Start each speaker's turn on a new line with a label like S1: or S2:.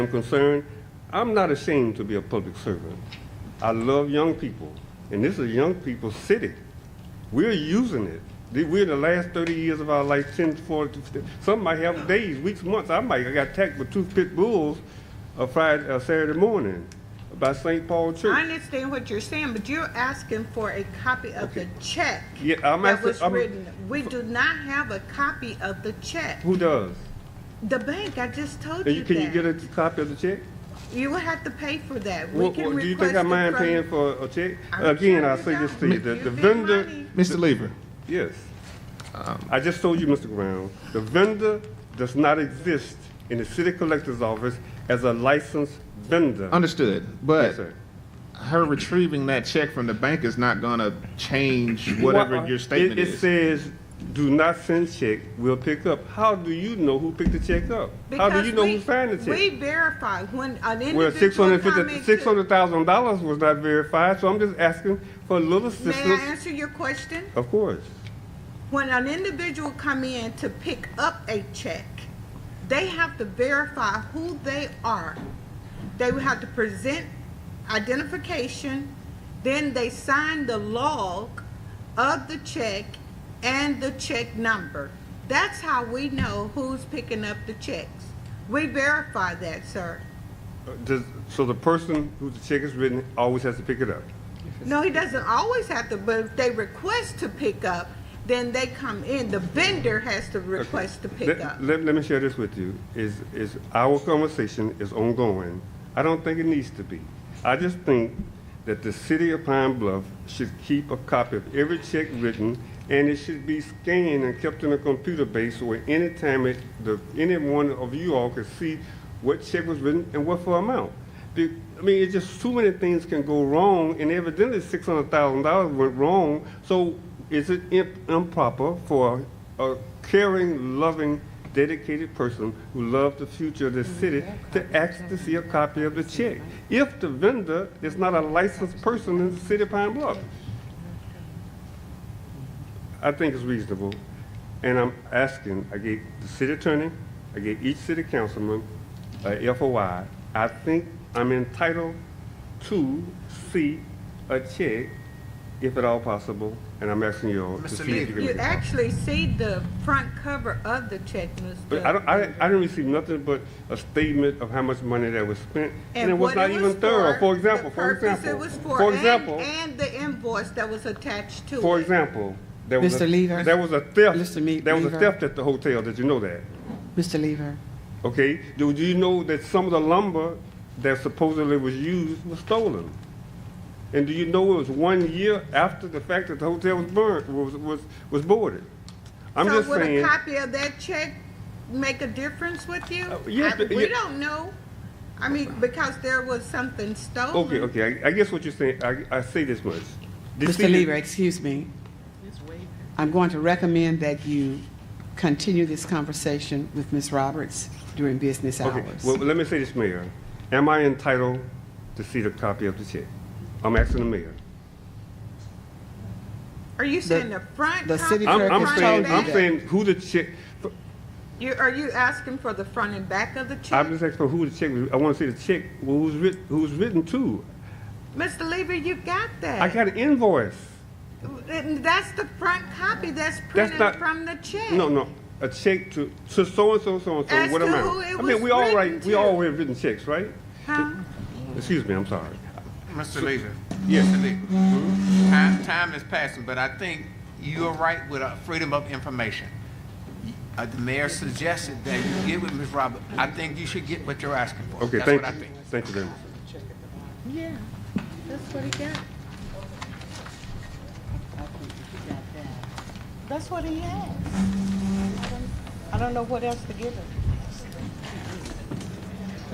S1: I'm concerned, I'm not ashamed to be a public servant. I love young people, and this is young people's city. We're using it. The- We're the last 30 years of our life, 10, 40, 50. Some might have days, weeks, months. I might, I got attacked with two pit bulls a Friday, a Saturday morning by St. Paul Church.
S2: I understand what you're saying, but you're asking for a copy of the check
S1: Yeah, I'm
S2: that
S1: asking-
S2: was
S1: I'm-
S2: written. We do not have a copy of the check.
S1: Who does?
S2: The bank, I just told
S1: And
S2: you
S1: you, can you get
S2: that.
S1: a copy of the check?
S2: You would have to pay for that. We
S1: What,
S2: can
S1: do you think I
S2: request it
S1: mind
S2: from-
S1: paying for a check?
S2: I'm
S1: Again,
S2: sure
S1: I
S2: you
S1: say this to
S2: don't.
S1: you, that
S2: You
S1: the
S2: think
S1: vendor,
S2: money-
S3: Mr. Lever,
S1: yes.
S3: Um,
S1: I just told you, Mr. Brown, the vendor does not exist in the city collector's office as a licensed vendor.
S3: understood,
S1: Yes,
S3: but
S1: sir.
S3: her retrieving that check from the bank is not gonna change whatever
S1: Why-
S3: your
S1: it-
S3: statement
S1: It
S3: is.
S1: says, do not send check, we'll pick up. How do you know who picked the check up? How do
S2: Because
S1: you know
S2: we-
S1: who signed the
S2: We
S1: check?
S2: verify when an
S1: Well, six
S2: individual
S1: hundred
S2: come into-
S1: fifty, six hundred thousand dollars was not verified, so I'm just asking for a little
S2: May I
S1: assistance.
S2: answer your question?
S1: Of course.
S2: When an individual come in to pick up a check, they have to verify who they are. They would have to present identification, then they sign the log of the check and the check number. That's how we know who's picking up the checks. We verify that, sir.
S1: Uh, Does, so the person who the check is written always has to pick it up?
S2: No, he doesn't always have to, but if they request to pick up, then they come in. The vendor has to request to pick
S1: Let-
S2: up.
S1: Let, let me share this with you, is, is our conversation is ongoing. I don't think it needs to be. I just think that the city of Pine Bluff should keep a copy of every check written, and it should be scanned and kept in a computer base, so at any time, it, the, any one of you all could see what check was written and what for amount. Be- I mean, it's just too many things can go wrong, and evidently six hundred thousand dollars went wrong. So, is it imp- improper for a caring, loving, dedicated person who loves the future of the city to ask to see a copy of the check? If the vendor is not a licensed person in the city of Pine Bluff, I think it's reasonable. And I'm asking, I gave the city attorney, I gave each city councilman, a FOI. I think I'm entitled to see a check, if at all possible, and I'm asking you all to
S4: Mr.
S1: see if you can.
S2: You
S1: make it.
S2: actually see the front cover of the check, Mr.
S1: But I don't, I, I didn't receive nothing but a statement of how much money that was spent, and it was
S2: what
S1: not
S2: it
S1: even
S2: was
S1: thorough. For
S2: the
S1: example, for
S2: purpose
S1: example,
S2: it was for,
S1: for
S2: and-
S1: example,
S2: And the invoice that was attached to it.
S1: for example, there was a,
S5: Mr. Lever.
S1: there was a theft,
S5: Mr. Me-
S1: there was a
S5: Lever.
S1: theft at the hotel. Did you know that?
S5: Mr. Lever,
S1: Okay, do you know that some of the lumber that supposedly was used was stolen? And do you know it was one year after the fact that the hotel was burned, was, was, was boarded? I'm just
S2: So would
S1: saying,
S2: a copy of that check make a difference with you?
S1: Uh, yes,
S2: I-
S1: but-
S2: We
S1: yeah.
S2: don't know. I mean, because there was something stolen.
S1: okay, okay, I, I guess what you're saying, I, I say this much. The
S5: Mr.
S1: city-
S5: Lever, excuse me. I'm going to recommend that you continue this conversation with Ms. Roberts during business
S1: Okay,
S5: hours.
S1: well, let me say this, Mayor. Am I entitled to see the copy of the check? I'm asking the mayor.
S2: Are you saying the front?
S5: the
S2: copy,
S5: city
S1: I'm,
S5: clerk
S1: I'm
S2: front
S5: has
S1: saying,
S2: and
S5: told you
S1: I'm
S2: back?
S5: that.
S1: saying who the check,
S2: You, are you asking for the front and back of the check?
S1: I'm just asking who the check, was- I wanna see the check, who's writ, who's written to.
S2: Mr. Lever, you got that.
S1: I got an invoice.
S2: And That's the front copy that's
S1: That's
S2: printed
S1: not-
S2: from the check.
S1: No, no, a check to, to so-and-so, so-and-so,
S2: As
S1: what
S2: to
S1: amount?
S2: who it
S1: I mean,
S2: was
S1: we all
S2: written
S1: write, we
S2: to.
S1: all have written checks, right?
S2: Huh?
S1: Excuse me, I'm sorry.
S4: Mr. Lever.
S1: Yes.
S4: Mr. Lever. Time, time is passing, but I think you're right with uh, freedom of information. Uh, the mayor suggested that you get with Ms. Robert. I think you should get what you're asking for.
S1: Okay,
S4: That's
S1: thank
S4: what I
S1: you,
S4: think.
S1: thank you very much.
S2: Yeah, that's what he got. That's what he has. I don't know what else to give him.